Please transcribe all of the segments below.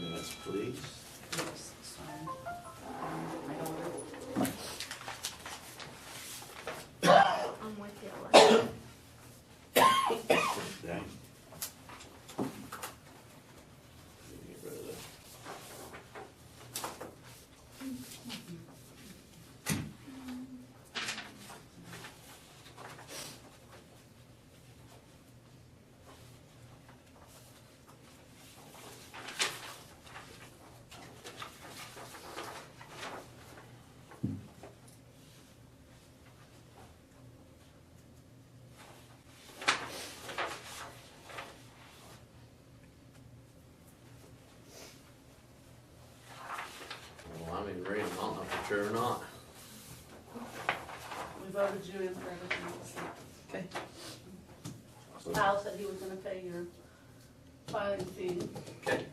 Minutes, please. Yes, so, um, my order. I'm with you. Alexa. Okay. Get rid of that. Well, I mean, read them, I don't know for sure or not. We voted you in for everything else. Okay. So, Kyle said he was gonna pay your filing fee. okay.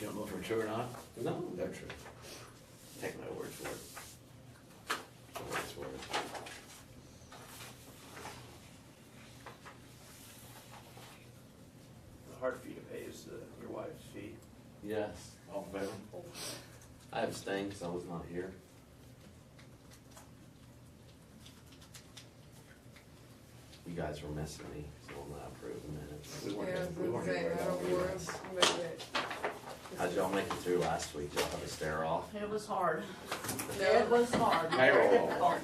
You don't know for sure or not? No, They're true. Take my word for it. My word's for it. The hard fee to pay is the, your wife's fee. yes, All in favor? I abstained because I was not here. You guys were missing me, so I'm not approving minutes. We weren't, Yeah, gonna- we weren't okay, gonna I write don't that one. worry, but it- How'd y'all make it through last week? Y'all have a stare off? It was hard. It No, was hard. Payroll. Difficult.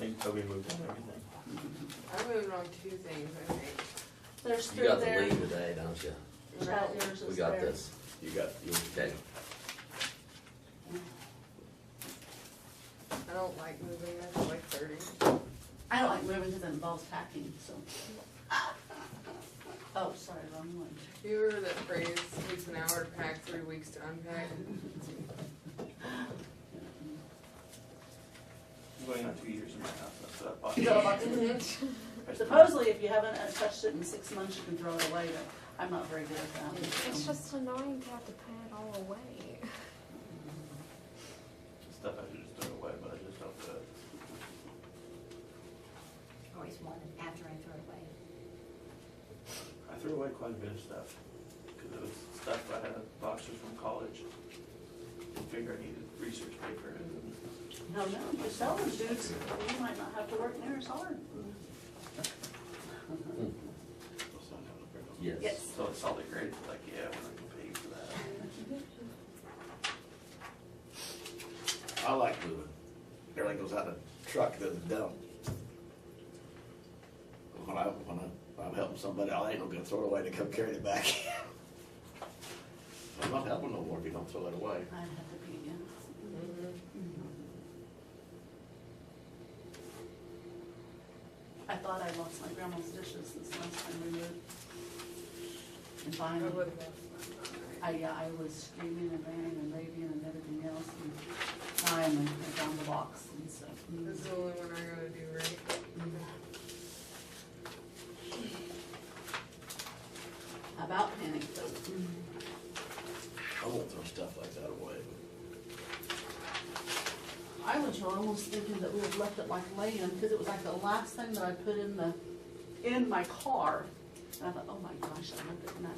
They Toby moved on everything. I moved on two things, I think. There's You three got the there. lead today, don't you? Chad, yours We is got there. this. You got, you, Okay. I don't like moving, I don't like thirty. I don't like moving because it involves packing, so. Oh, sorry, wrong one. You remember that phrase, takes an hour to pack, three weeks to unpack? I'm going on two years in my house, that's what I bought. So, like, Mm-hmm. I spent- Supposedly, if you haven't uh, touched it in six months, you can throw it away, but I'm not very good at that. so. It's just annoying to have to pay it all away. Stuff I should just throw away, but I just don't do it. Always wanted after I throw it away. I threw away quite a bit of stuff, because it was stuff I had boxes from college. Figure I needed research paper and No, no, you're selling dudes, you might not have to work near as hard. also I had a paper. Yes. Yes. So I saw the grades, like, yeah, we're not gonna pay you for I that. like moving. Everything goes out of the truck, doesn't dump. When I, when I, I'm helping somebody, I ain't gonna throw it away to come carry it back. I'm not helping no more if you don't throw it away. I'd have to be, yeah. I thought I lost my grandma's dishes since last time we moved. And I finally, wouldn't have. I, yeah, I was screaming and banging and raving and everything else, and finally, I found the box, and so. This is the only one I gotta do right. About panic, though. I won't throw stuff like that away. I was almost thinking that we had left it like laying, because it was like the last thing that I put in the, in my car. And I thought, oh my gosh, I left it in the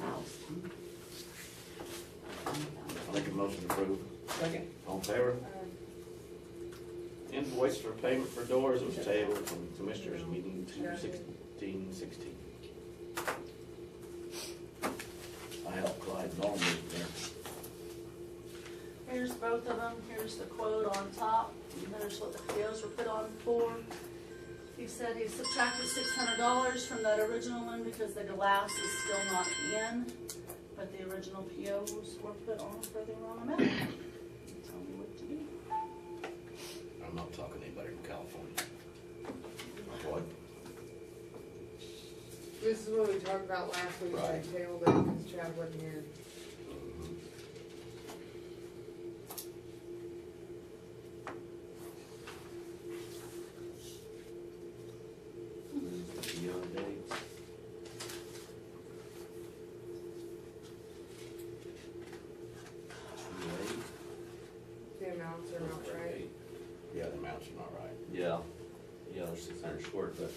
I'll house. make a motion to approve. Second. All in favor? Invoice for payment for doors was tabled from commissioners meeting two sixteen sixteen. I helped Clyde and all move there. Here's both of them, here's the quote on top, and there's what the POs were put on for. He said he subtracted six hundred dollars from that original one because the glass is still not in, but the original POs were put on for the wrong amount. Tell me what to do. I'm not talking to anybody from California. What? This is what we talked about last week, I Right. tabled it because Chad wasn't here. Beyond dates. The amounts are not right. Yeah, the amounts are not right. Yeah, yeah, there's six hundred short, but